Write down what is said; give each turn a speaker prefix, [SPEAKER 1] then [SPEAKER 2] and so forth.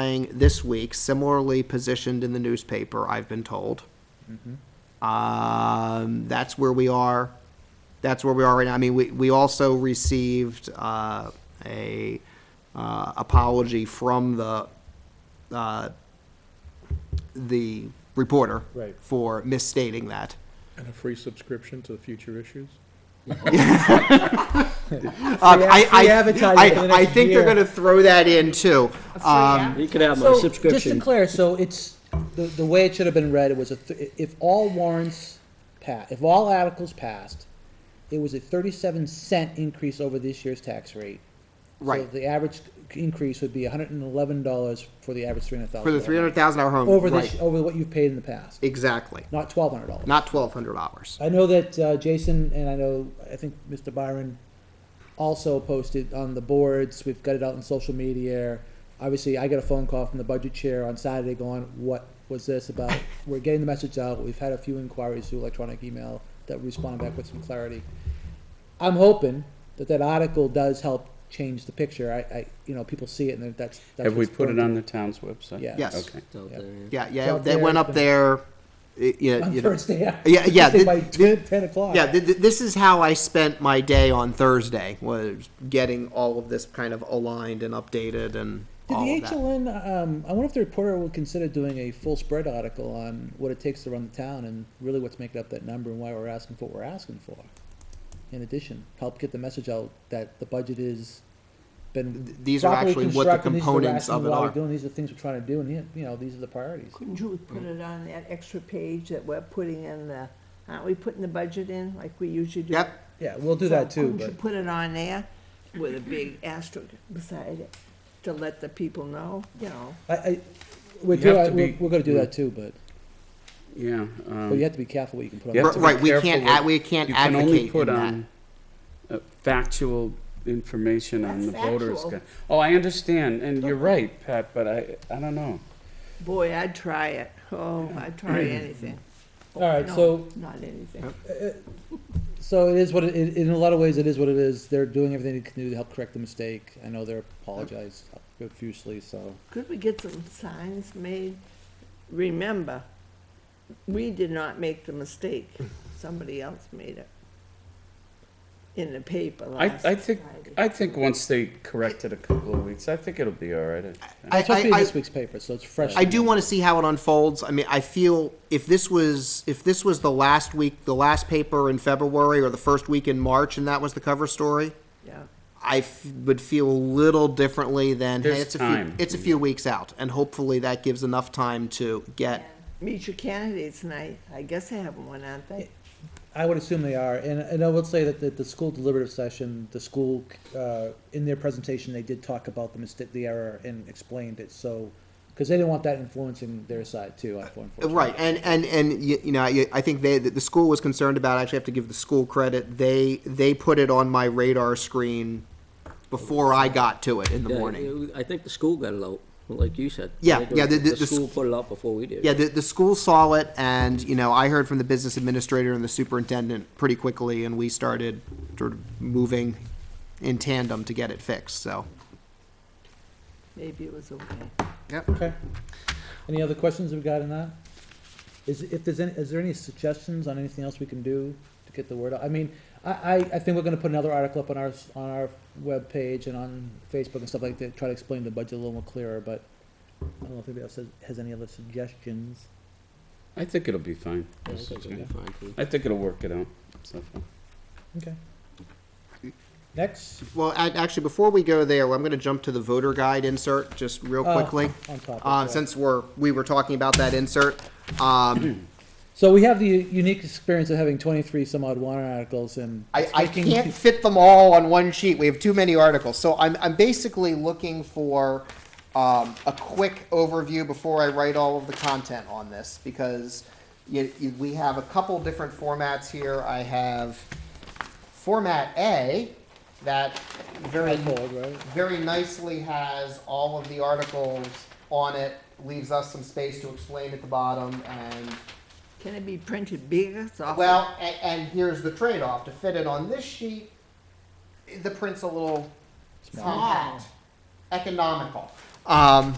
[SPEAKER 1] playing this week, similarly positioned in the newspaper, I've been told.
[SPEAKER 2] Mm-hmm.
[SPEAKER 1] Um, that's where we are. That's where we are right now. I mean, we, we also received, uh, a, uh, apology from the, uh, the reporter.
[SPEAKER 3] Right.
[SPEAKER 1] For misstating that.
[SPEAKER 3] And a free subscription to the future issues?
[SPEAKER 1] Um, I, I,
[SPEAKER 2] free advertising
[SPEAKER 1] I-
[SPEAKER 2] for the
[SPEAKER 1] I
[SPEAKER 2] next
[SPEAKER 1] think they're
[SPEAKER 2] year.
[SPEAKER 1] gonna throw that in too. Um,
[SPEAKER 4] You could have my
[SPEAKER 2] So, just to
[SPEAKER 4] subscription.
[SPEAKER 2] clear, so it's, the, the way it should have been read, it was a, th- if all warrants pa, if all articles passed, it was a thirty-seven cent increase over this year's tax rate.
[SPEAKER 1] Right.
[SPEAKER 2] So the average increase would be hundred and eleven dollars for the average three hundred thousand.
[SPEAKER 1] For the three hundred thousand hour home,
[SPEAKER 2] Over
[SPEAKER 1] right,
[SPEAKER 2] this, over what you've paid in the past,
[SPEAKER 1] exactly,
[SPEAKER 2] not twelve hundred dollars.
[SPEAKER 1] not twelve hundred dollars.
[SPEAKER 2] I know that uh, Jason and I know, I think Mr. Byron also posted on the boards. We've got it out on social media. Obviously, I got a phone call from the budget chair on Saturday going, what was this about? We're getting the message out. We've had a few inquiries through electronic email that respond back with some clarity. I'm hoping that that article does help change the picture. I, I you know, people see it and that's. that's
[SPEAKER 5] Have we
[SPEAKER 2] what's
[SPEAKER 5] put it
[SPEAKER 2] burning.
[SPEAKER 5] on the town's website?
[SPEAKER 2] Yeah.
[SPEAKER 1] Yes.
[SPEAKER 5] Okay.
[SPEAKER 4] It's out
[SPEAKER 2] Yeah.
[SPEAKER 4] there, yeah.
[SPEAKER 1] Yeah,
[SPEAKER 2] It's
[SPEAKER 1] yeah,
[SPEAKER 2] out
[SPEAKER 1] they
[SPEAKER 2] there,
[SPEAKER 1] went
[SPEAKER 2] it's
[SPEAKER 1] up
[SPEAKER 2] been-
[SPEAKER 1] there, y- yeah,
[SPEAKER 2] On
[SPEAKER 1] you know.
[SPEAKER 2] Thursday.
[SPEAKER 1] Yeah, yeah, the-
[SPEAKER 2] By
[SPEAKER 1] the-
[SPEAKER 2] 10 10 o'clock.
[SPEAKER 1] Yeah, th- th- this is how I spent my day on Thursday, was getting all of this kind of aligned and updated and
[SPEAKER 2] Did
[SPEAKER 1] all of
[SPEAKER 2] the
[SPEAKER 1] that.
[SPEAKER 2] HLN, um, I wonder if the reporter will consider doing a full spread article on what it takes to run the town and really what's making up that number and why we're asking for what we're asking for. In addition, help get the message out that the budget is been.
[SPEAKER 1] Th- these are
[SPEAKER 2] properly
[SPEAKER 1] actually what the
[SPEAKER 2] constructed, these
[SPEAKER 1] components
[SPEAKER 2] the
[SPEAKER 1] of it
[SPEAKER 2] rationale why we're
[SPEAKER 1] are.
[SPEAKER 2] Doing, these are the things we're trying to do and, you know, these are the priorities.
[SPEAKER 6] Couldn't you put it on that extra page that we're putting in the, aren't we putting the budget in like we usually do?
[SPEAKER 1] Yep,
[SPEAKER 2] Yeah, we'll do that
[SPEAKER 6] So
[SPEAKER 2] too,
[SPEAKER 6] Couldn't you
[SPEAKER 2] but
[SPEAKER 6] put it on there with a big asterisk beside it to let the people know, you know?
[SPEAKER 2] I, I, we're,
[SPEAKER 5] You have
[SPEAKER 2] doing-
[SPEAKER 5] to
[SPEAKER 2] we're,
[SPEAKER 5] be-
[SPEAKER 2] we're gonna do that too, but,
[SPEAKER 5] Yeah.
[SPEAKER 2] but you
[SPEAKER 5] um,
[SPEAKER 2] have to be careful what you can put
[SPEAKER 5] You
[SPEAKER 2] on.
[SPEAKER 5] have
[SPEAKER 1] R-
[SPEAKER 5] to
[SPEAKER 2] there.
[SPEAKER 5] be
[SPEAKER 1] right, we
[SPEAKER 5] careful
[SPEAKER 1] can't,
[SPEAKER 5] with-
[SPEAKER 1] ad- we can't
[SPEAKER 5] You can only
[SPEAKER 1] advocate
[SPEAKER 5] put
[SPEAKER 1] in
[SPEAKER 5] on uh, factual information on the
[SPEAKER 6] That's
[SPEAKER 5] voters.
[SPEAKER 6] factual.
[SPEAKER 5] gu- Oh, I understand, and you're right, Pat, but I, I don't know.
[SPEAKER 6] Boy, I'd try it. Oh, I'd try anything.
[SPEAKER 2] All right,
[SPEAKER 6] No,
[SPEAKER 2] so-
[SPEAKER 6] Not anything.
[SPEAKER 2] So it is what it, in in a lot of ways, it is what it is. They're doing everything they can do to help correct the mistake. I know they're apologized profusely, so.
[SPEAKER 6] Could we get some signs made? Remember, we did not make the mistake. Somebody else made it. In the paper
[SPEAKER 5] I,
[SPEAKER 6] last
[SPEAKER 5] I think,
[SPEAKER 6] Friday.
[SPEAKER 5] I think once they correct it a couple of weeks, I think it'll be all right. I-
[SPEAKER 1] that.
[SPEAKER 2] It's
[SPEAKER 1] I-
[SPEAKER 2] supposed to be in
[SPEAKER 1] I- I-
[SPEAKER 2] this week's paper, so it's fresh.
[SPEAKER 1] I do want to see how it unfolds. I mean, I feel if this was if this was the last week, the last paper in February or the first week in March, and that was the cover story,
[SPEAKER 6] Yeah.
[SPEAKER 1] I f- would feel a little differently than hey,
[SPEAKER 5] There's
[SPEAKER 1] it's a
[SPEAKER 5] time.
[SPEAKER 1] few it's a few weeks out, and hopefully that gives enough time to get.
[SPEAKER 6] Meet your candidates night. I guess they have one, aren't they?
[SPEAKER 2] I would assume they are, and, and I will say that the, the school deliberative session, the school, uh, in their presentation, they did talk about the mistake, the error, and explained it, so, because they didn't want that influencing their side too, unfortunately.
[SPEAKER 1] uh, Right, and and and you, you know, I, I think they the school was concerned about. I actually have to give the school credit. They they put it on my radar screen before I got to it in the
[SPEAKER 4] Yeah,
[SPEAKER 1] morning.
[SPEAKER 4] it- I think the school got it out, like you said.
[SPEAKER 1] Yeah,
[SPEAKER 4] Like,
[SPEAKER 1] yeah, the- the- the
[SPEAKER 4] The school
[SPEAKER 1] sc-
[SPEAKER 4] put it out before we did.
[SPEAKER 1] Yeah, the, the school saw it, and you know, I heard from the business administrator and the superintendent pretty quickly, and we started sort of moving in tandem to get it fixed. So,
[SPEAKER 6] Maybe it was okay.
[SPEAKER 2] Okay. Any other questions we've got on that? Is, if there's any, is there any suggestions on anything else we can do to get the word out? I mean, I, I, I think we're gonna put another article up on our, s- on our webpage and on Facebook and stuff like that, try to explain the budget a little more clearer, but I don't know if anybody else has, has any other suggestions.
[SPEAKER 5] I think it'll be fine.
[SPEAKER 4] I think it'll be fine, too.
[SPEAKER 5] I think it'll work it out. so.
[SPEAKER 2] Okay. Next,
[SPEAKER 1] well, a- actually, before we go there, I'm going to jump to the voter guide insert just real
[SPEAKER 2] Oh,
[SPEAKER 1] quickly,
[SPEAKER 2] on topic,
[SPEAKER 1] uh,
[SPEAKER 2] yeah.
[SPEAKER 1] since we're we were talking about that insert. Um,
[SPEAKER 2] so we have the unique experience of having twenty-three some odd warrant articles and.
[SPEAKER 1] I, I
[SPEAKER 2] picking-
[SPEAKER 1] can't fit them all on one sheet. We have too many articles. So I'm, I'm basically looking for um, a quick overview before I write all of the content on this because you, you, we have a couple different formats here. I have format A that very
[SPEAKER 2] Fold, right?
[SPEAKER 1] very nicely has all of the articles on it, leaves us some space to explain at the bottom and
[SPEAKER 6] Can it be printed bigger, softer?
[SPEAKER 1] well, and, and here's the trade-off, to fit it on this sheet, the print's a little
[SPEAKER 2] Small.
[SPEAKER 1] not economical. Um,